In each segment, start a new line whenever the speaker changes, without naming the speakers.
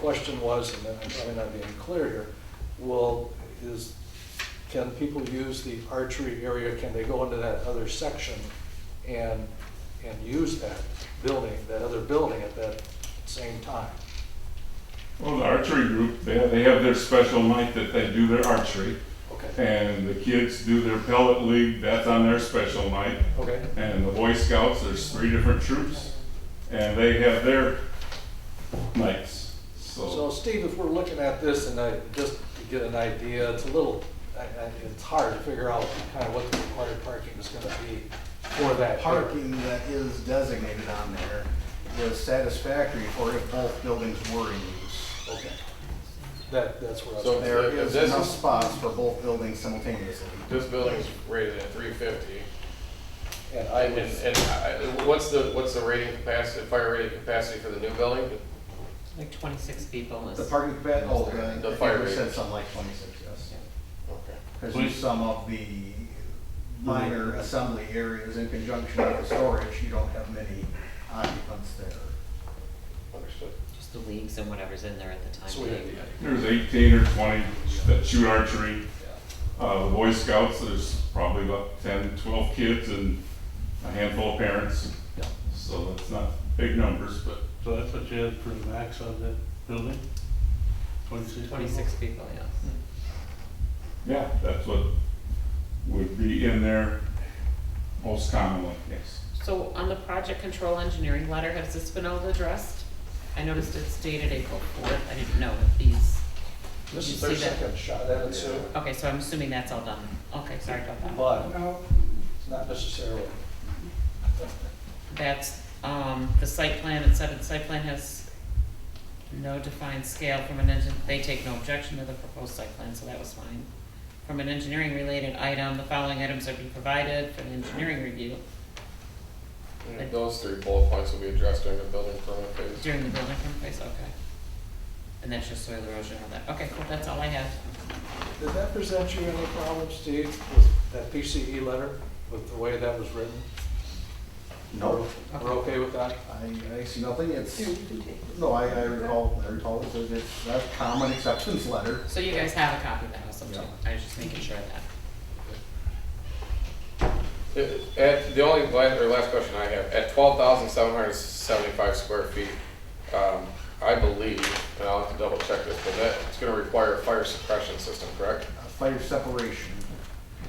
question was, and I'm probably not being clear here, will, is, can people use the archery area, can they go into that other section and, and use that building, that other building at that same time?
Well, the archery group, they, they have their special night that they do their archery,
Okay,
and the kids do their pellet league, that's on their special night.
okay,
And the Boy Scouts, there's three different troops, and they have their nights,
so
so.
Steve, if we're looking at this and I, just to get an idea, it's a little, I, I, it's hard to figure out kind of what the required parking is gonna be for that.
parking that is designated on there is satisfactory for if both buildings were in use.
Okay. That, that's where I
So
was.
There
If
is
this
enough
is-
spots for both buildings simultaneously.
This building's rated at three fifty,
And I
and,
would,
and I- what's the, what's the rating capacity, fire rating capacity for the new building?
Like twenty-six people is.
The parking capacity, oh, the,
The
I
fire
think we said
rate.
something like twenty-six, yes.
Okay.
Because you sum up the minor assembly areas in conjunction with the storage, you don't have many occupants there.
Understood.
Just the leagues and whatever's in there at the time.
so we
being.
had the-
There's eighteen or twenty that shoot archery. Uh, the Boy Scouts, there's probably about 10, 12 kids and a handful of parents.
Yeah.
So that's not big numbers, but
So that's what you had for the max of that building? Twenty-six?
Twenty-six people, yes.
Mm.
Yeah, that's what would be in there most commonly, yes.
So on the project control engineering letter, has this been all addressed? I noticed it's dated April fourth, I didn't know that these, did
This
you
is their
see that?
second shot at it, so,
Okay, so I'm assuming that's all done, okay, sorry about that.
but it's not necessarily.
That's, um, the site plan, it said the site plan has no defined scale from an engine, they take no objection to the proposed site plan, so that was fine. From an engineering related item, the following items are to be provided for the engineering review.
And Those three bullet points will be addressed during the building permit phase.
During the building permit phase, okay. And that's just soil erosion and all that. Okay, cool, that's all I have.
Did that present you any problems, Steve, with that PCE letter, with the way that was written?
No,
We're okay with that?
I, I see nothing, it's, no, I, I recall, I recall it, says it's a common acceptance letter.
So you guys have a copy of that also too?
Yeah.
I was just making sure of that.
At- Uh, At, the only, la- or last question I have, at twelve thousand seven hundred seventy-five square feet, um, I believe, and I'll have to double check this, but that, it's gonna require a fire suppression system, correct?
fire separation.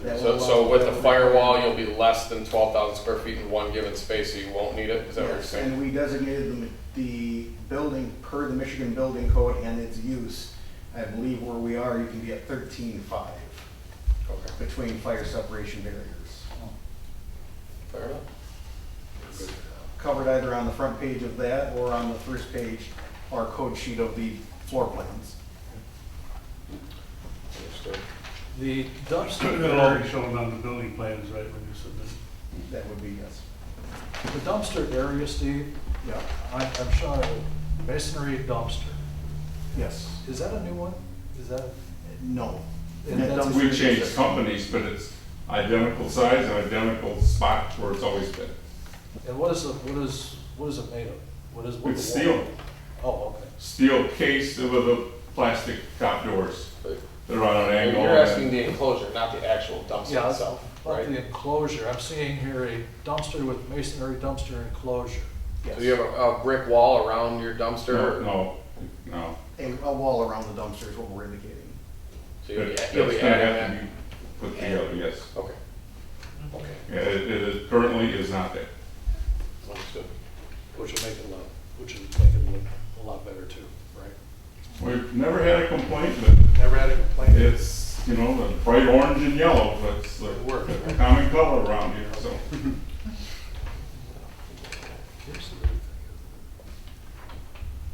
That
So,
will
so
allow-
with the firewall, you'll be less than twelve thousand square feet in one given space, so you won't need it, is that what you're
Yes,
saying?
and we designated the, the building per the Michigan Building Code and its use. I believe where we are, you can be at thirteen-five
Okay,
between fire separation barriers.
fair enough.
Covered either on the front page of that or on the first page, our code sheet of the floor plans.
Understood.
The dumpster
It
area,
already showed on the building plans, right, when you submitted?
That would be yes.
the dumpster area, Steve,
Yeah,
I- I'm showing a masonry dumpster.
yes,
Is that a new one? Is that,
no.
And that's-
That dumpster
We
is
changed
just-
companies, but it's identical size and identical spot where it's always been.
and what is, the- what is, what is it made of? What is, what
It's
is the wall?
steel,
Oh, okay.
steel case with a plastic top doors. They're on an
You're
angle.
you're asking
and-
the enclosure, not the actual dumpster
Yeah,
itself,
About
right?
the enclosure, I'm seeing here a dumpster with masonry dumpster enclosure.
yes.
So you have a, a brick wall around your dumpster?
No,
or-
no, no.
A, a wall around the dumpster is what we're indicating.
So you'll be,
It's
you'll
gonna
be
have to be
adding
put together, yes.
that? Okay. Okay,
Yeah, It, it currently is not there.
understood.
Which will make it look, which will make it look a lot better too, right?
We've never had a complaint, but
Never had a complaint.
it's, you know, the bright orange and yellow, but it's the
Work.
a common color around here, so.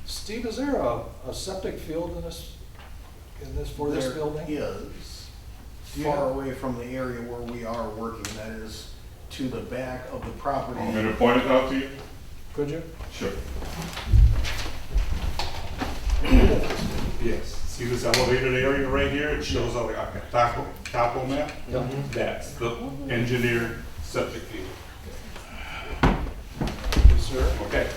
Steve, is there a, a septic field in this, in this, for this
There
building?
Is
Do you
far
have-
away from the area where we are working, that is to the back of the property.
Want me to point it out to you?
Could you?
Sure.
Yes, see this elevated area right here, it shows on the okay, topo, topo map?
Yeah.
That's the engineered septic field,
Yes, sir.
okay?